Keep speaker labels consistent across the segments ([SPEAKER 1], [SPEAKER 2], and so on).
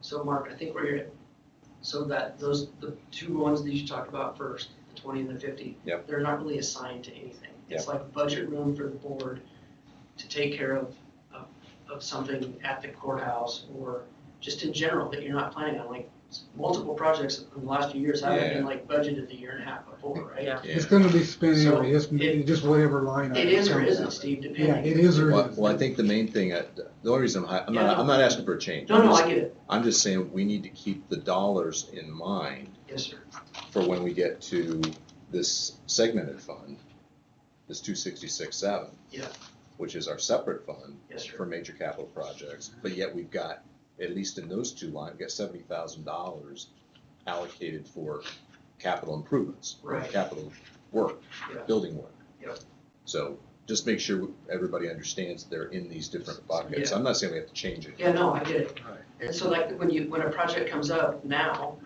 [SPEAKER 1] So Mark, I think we're, so that those, the two ones that you talked about first, the twenty and the fifty.
[SPEAKER 2] Yep.
[SPEAKER 1] They're not really assigned to anything. It's like budget room for the board to take care of, of, of something at the courthouse or just in general that you're not planning on, like multiple projects in the last few years haven't been like budgeted a year and a half before, right?
[SPEAKER 3] Yeah.
[SPEAKER 2] Yeah.
[SPEAKER 4] It's gonna be spent
[SPEAKER 1] So
[SPEAKER 4] anyway, it's
[SPEAKER 1] it-
[SPEAKER 4] just whatever line.
[SPEAKER 1] It
[SPEAKER 4] item
[SPEAKER 1] is or
[SPEAKER 4] comes
[SPEAKER 1] isn't,
[SPEAKER 4] up.
[SPEAKER 1] Steve,
[SPEAKER 4] Yeah,
[SPEAKER 1] depending.
[SPEAKER 4] it is or
[SPEAKER 2] Well,
[SPEAKER 4] isn't.
[SPEAKER 2] well, I think the main thing, I- the only reason, I- I'm not, I'm not asking for a change.
[SPEAKER 1] No,
[SPEAKER 2] I'm
[SPEAKER 1] no,
[SPEAKER 2] just-
[SPEAKER 1] I get it.
[SPEAKER 2] I'm just saying, we need to keep the dollars in mind
[SPEAKER 1] Yes, sir.
[SPEAKER 2] for when we get to this segmented fund, this two sixty-six seven.
[SPEAKER 1] Yeah.
[SPEAKER 2] Which is our separate fund
[SPEAKER 1] Yes,
[SPEAKER 2] for
[SPEAKER 1] sir.
[SPEAKER 2] major capital projects, but yet we've got, at least in those two lines, we've got seventy thousand dollars allocated for capital improvements.
[SPEAKER 1] Right.
[SPEAKER 2] Capital work,
[SPEAKER 1] Yeah.
[SPEAKER 2] building work.
[SPEAKER 1] Yep.
[SPEAKER 2] So just make sure everybody understands they're in these different buckets.
[SPEAKER 1] Yeah.
[SPEAKER 2] I'm not saying we have to change it.
[SPEAKER 1] Yeah, no, I get it.
[SPEAKER 4] Right.
[SPEAKER 1] And so like when you, when a project comes up now,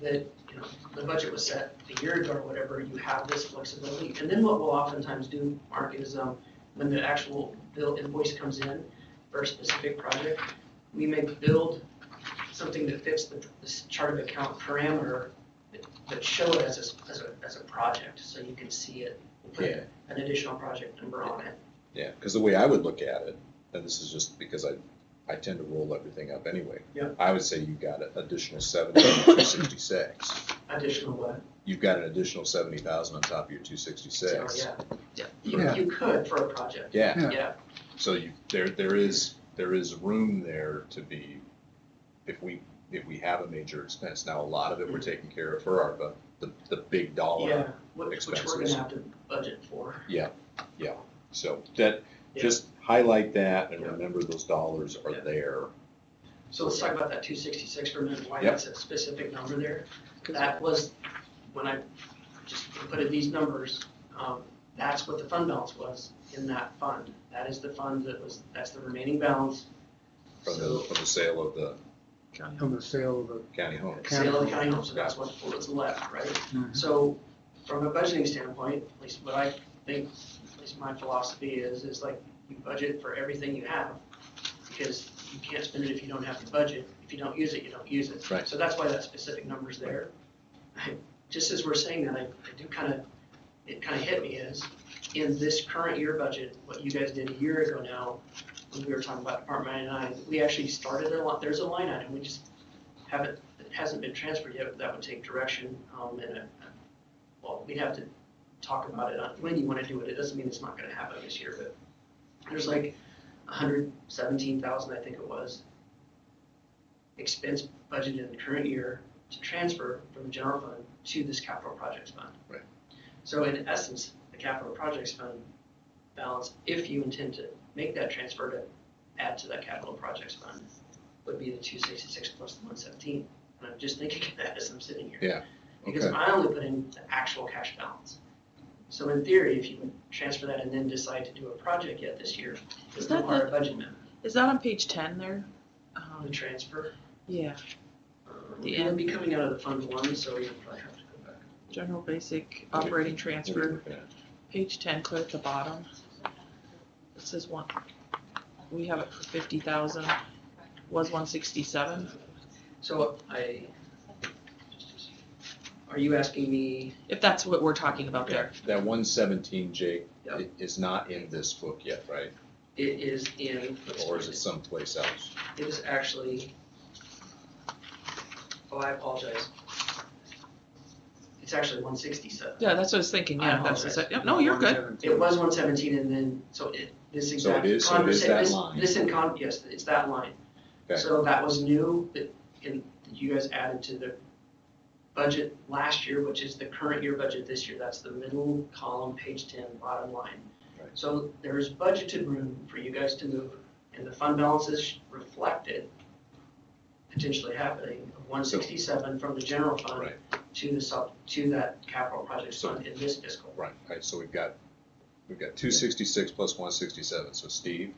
[SPEAKER 1] that, you know, the budget was set a year ago or whatever, you have this flexibility. And then what we'll oftentimes do, Mark, is um, when the actual bill invoice comes in for a specific project, we may build something that fits the, this chart of account parameter that- that show it as a, s- as a, as a project, so you can see it. We'll put
[SPEAKER 2] Yeah,
[SPEAKER 1] An additional project number on it.
[SPEAKER 2] yeah, because the way I would look at it, and this is just because I, I tend to roll everything up anyway.
[SPEAKER 1] Yeah.
[SPEAKER 2] I would say you've got an additional seventy two sixty-six.
[SPEAKER 1] Additional what?
[SPEAKER 2] You've got an additional seventy thousand on top of your two sixty-six.
[SPEAKER 1] Oh, Yeah, yeah. You,
[SPEAKER 4] Yeah.
[SPEAKER 1] you could for a project,
[SPEAKER 2] Yeah,
[SPEAKER 4] Yeah.
[SPEAKER 1] yeah.
[SPEAKER 2] So you, there, there is, there is room there to be, if we, if we have a major expense, now a lot of it we're taking care of for ARPA, the, the big
[SPEAKER 1] Yeah,
[SPEAKER 2] dollar.
[SPEAKER 1] which, which we're
[SPEAKER 2] expenses.
[SPEAKER 1] gonna have to budget for.
[SPEAKER 2] So that,
[SPEAKER 1] Yeah.
[SPEAKER 2] just highlight that and
[SPEAKER 1] Yeah.
[SPEAKER 2] remember those dollars
[SPEAKER 1] Yeah.
[SPEAKER 2] are there.
[SPEAKER 1] So let's talk about that two sixty-six for a minute, why
[SPEAKER 2] Yep.
[SPEAKER 1] that's a specific number there. That was, when I just inputted these numbers, um, that's what the fund balance was in that fund. That is the fund that was, that's the remaining balance.
[SPEAKER 2] From the,
[SPEAKER 1] So,
[SPEAKER 2] from the sale of the
[SPEAKER 4] From the sale of the,
[SPEAKER 2] county home.
[SPEAKER 1] sale of the county home, so that's what, what's left, right? So from a budgeting standpoint, at least what I think, at least my philosophy is, is like you budget for everything you have because you can't spend it if you don't have the budget. If you don't use it, you don't use it.
[SPEAKER 2] Right.
[SPEAKER 1] So that's why that specific number's there. I- Just as we're saying that, I I do kind of, it kind of hit me is, in this current year budget, what you guys did a year ago now, when we were talking about Department 99, we actually started a lot, there's a line item, we just haven't, it hasn't been transferred yet, but that would take direction, um, and a, well, we'd have to talk about it on when you wanna do it, it doesn't mean it's not gonna happen this year, but there's like hundred seventeen thousand, I think it was, expense budgeted in the current year to transfer from the general fund to this capital projects fund.
[SPEAKER 2] Right.
[SPEAKER 1] So in essence, the capital projects fund balance, if you intend to make that transfer to add to that capital projects fund, would be the two sixty-six plus the one seventeen, and I'm just thinking of that as I'm sitting here. Because
[SPEAKER 2] Okay,
[SPEAKER 1] I only put in the actual cash balance. So in theory, if you would transfer that and then decide to do a project yet this year, it
[SPEAKER 3] Is
[SPEAKER 1] would
[SPEAKER 3] that
[SPEAKER 1] require a budget amendment.
[SPEAKER 3] Is that on page ten there?
[SPEAKER 1] The
[SPEAKER 3] Um,
[SPEAKER 1] transfer,
[SPEAKER 3] yeah,
[SPEAKER 1] um,
[SPEAKER 3] The
[SPEAKER 1] it would
[SPEAKER 3] end.
[SPEAKER 1] be coming out of the fund one, so we would probably have to go back.
[SPEAKER 3] general basic
[SPEAKER 2] Okay.
[SPEAKER 3] operating
[SPEAKER 2] what are you
[SPEAKER 3] transfer,
[SPEAKER 2] looking at?
[SPEAKER 3] page ten, clear at the bottom. It says one, we have it for fifty thousand, was one sixty-seven.
[SPEAKER 1] So I, are you asking me,
[SPEAKER 3] If that's what we're talking about
[SPEAKER 2] Yeah,
[SPEAKER 3] there,
[SPEAKER 2] That one seventeen, Jake,
[SPEAKER 1] Yeah.
[SPEAKER 2] i- is not in this book yet, right?
[SPEAKER 1] it is in,
[SPEAKER 2] Or is it someplace else?
[SPEAKER 1] it is actually, oh, I apologize. It's actually one sixty-seven.
[SPEAKER 3] yeah, that's what I was thinking,
[SPEAKER 1] I
[SPEAKER 3] yeah, that's, the se- yeah, no, you're good,
[SPEAKER 1] It was one seventeen and then, so it, this
[SPEAKER 2] So
[SPEAKER 1] exact
[SPEAKER 2] it is- so it is
[SPEAKER 1] conversation,
[SPEAKER 2] that
[SPEAKER 1] this,
[SPEAKER 2] line.
[SPEAKER 1] this in con, yes, it's that line.
[SPEAKER 2] Okay.
[SPEAKER 1] So that was new, that, and you guys added to the budget last year, which is the current year budget this year, that's the middle column, page ten, bottom line.
[SPEAKER 2] Right.
[SPEAKER 1] So there is budgeted room for you guys to move, and the fund balances reflected potentially happening, of one sixty-seven from the general fund
[SPEAKER 2] Right,
[SPEAKER 1] to the sub, to that capital projects
[SPEAKER 2] So-
[SPEAKER 1] fund in this fiscal.
[SPEAKER 2] right, right, so we've got, we've got two sixty-six plus one sixty-seven, so Steve,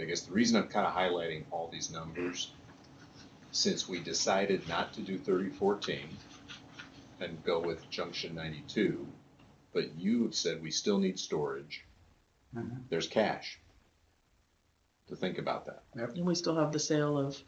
[SPEAKER 2] I guess the reason I'm kind of highlighting all these numbers, since we decided not to do thirty fourteen and go with junction ninety-two, but you have said we still need storage,
[SPEAKER 4] Mhm.
[SPEAKER 2] there's cash. To think about that,
[SPEAKER 3] and we still have the sale of